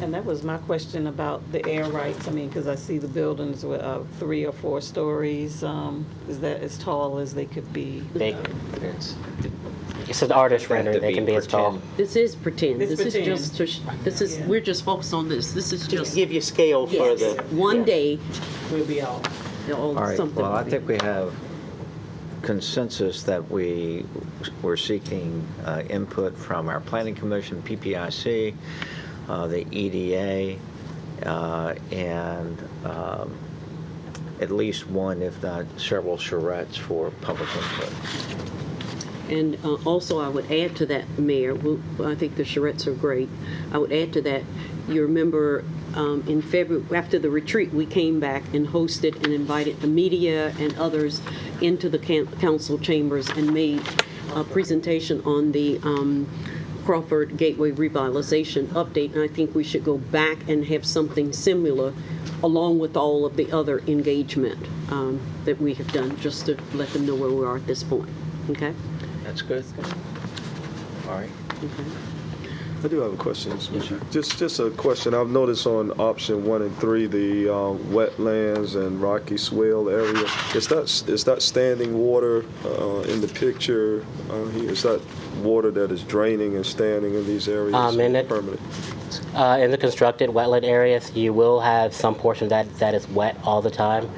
And that was my question about the air rights. I mean, because I see the buildings with uh, three or four stories. um, Is that as tall as they could be? They, It's- it's an artist Have to rendering. They be can be as tall. pretend. This is pretend. It's This is pretend. just, to sh- this is, Yeah. we're just focused on this. This is Just just, give you scale for yes, the. one day, We'll be out. you know, All right, something. well, I will be- think we have consensus that we were seeking uh, input from our planning commission, PPIC, uh, the EDA, uh, and um, at least one, if not several charrettes for public input. And uh, also, I would add to that, Mayor, we'll- I think the charrettes are great. I would add to that, you remember um, in February, after the retreat, we came back and hosted and invited the media and others into the can- council chambers and made a presentation on the um, Crawford Gateway revitalization update. And I think we should go back and have something similar, along with all of the other engagement um, that we have done, just to let them know where we are at this point. Okay? That's good? All right. I do have a question. Just, just a question. I've noticed on option one and three, the uh, wetlands and rocky swale area, is that, is that standing water uh, in the picture uh, here? Is that water that is draining and standing in these areas? Um, in it- Permanent? Uh, in the constructed wetland areas, you will have some portion that, that is wet all the time,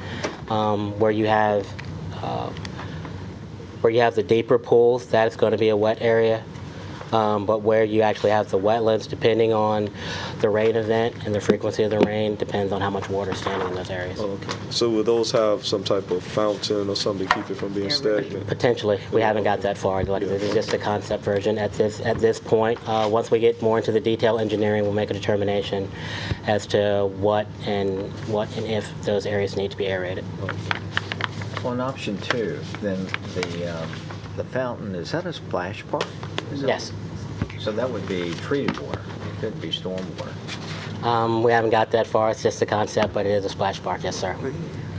um, where you have uh, where you have the deeper pools. That is going to be a wet area, um, but where you actually have the wetlands, depending on the rain event and the frequency of the rain, depends on how much water is standing in those areas. Oh, okay. So will those have some type of fountain or something to keep it from being stagnant? Potentially, we haven't got that far. Like, this is just a concept version at this, at this point. Uh, Once we get more into the detail engineering, we'll make a determination as to what and, what and if those areas need to be aerated. On option two, then the, um, the fountain, is that a splash park? Is that- Yes. So that would be treated water, it could be storm water. Um, We haven't got that far, it's just a concept, but it is a splash park, yes, sir.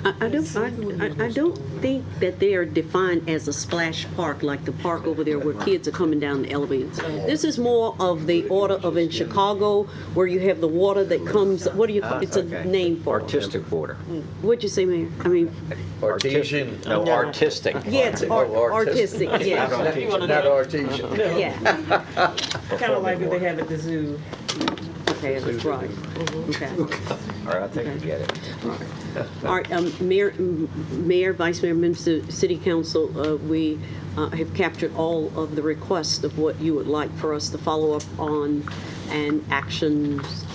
I I don't, I- I, I don't think that they are defined as a splash park, like the park over there where kids are coming down the elevators. This is more of the order of in Chicago, where you have the water that comes, what do you, call it's a Okay. name for it. Artistic water. What'd you say, Mayor? I mean, Artesian. No, artistic. yeah, it's art- Oh, artistic. artistic, yeah, Not artesian. yeah. Kind of like what they have at the zoo. Okay, that's right, okay. All right, I think we get it. All right, um, Mayor, m- Mayor, Vice Mayor, members of the City Council, uh, we uh, have captured all of the requests of what you would like for us to follow up on and actions,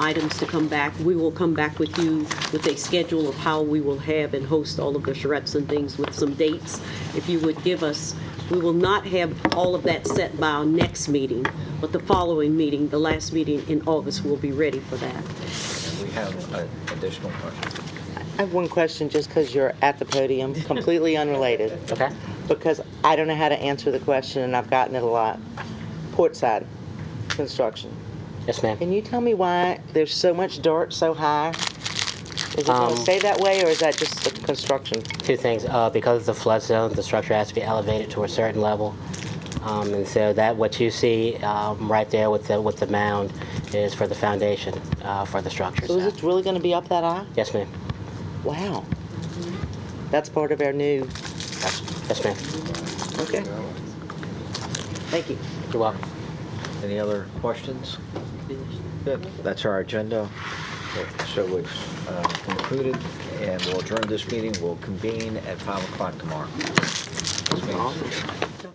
items to come back. We will come back with you with a schedule of how we will have and host all of the charrettes and things with some dates. If you would give us, we will not have all of that set by our next meeting, but the following meeting, the last meeting in August, we'll be ready for that. We have an additional question. I have one question just because you're at the podium, completely unrelated, Okay? because I don't know how to answer the question and I've gotten it a lot. Portside construction. Yes, ma'am. Can you tell me why there's so much dirt so high? Is it Um, going to stay that way or is that just the construction? Two things, uh, because it's a flood zone, the structure has to be elevated to a certain level. Um, And so that, what you see um, right there with the, with the mound is for the foundation uh, for the structure. So is it really going to be up that high? Yes, ma'am. Wow. Mm-hmm. That's part of our new, Yes, ma'am. okay. Thank you. You're welcome. Any other questions? Good. That's our agenda. So we've uh, concluded, and we'll adjourn this meeting. We'll convene at 5 o'clock tomorrow. This meeting's-